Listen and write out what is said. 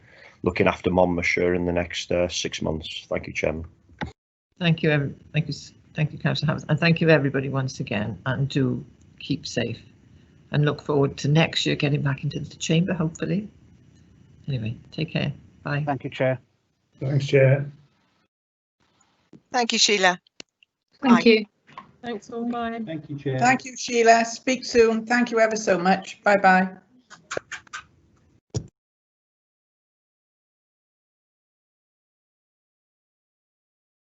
looking after Monmouthshire in the next uh, six months. Thank you, Chairman. Thank you, every, thank you, s- thank you, councillor Hammond, and thank you everybody once again, and do keep safe. And look forward to next year getting back into the chamber, hopefully. Anyway, take care, bye. Thank you, Chair. Thanks, Chair. Thank you, Sheila. Aye. Thank you. Thanks all, bye. Thank you, Chair. Thank you, Sheila. Speak soon. Thank you ever so much. Bye bye.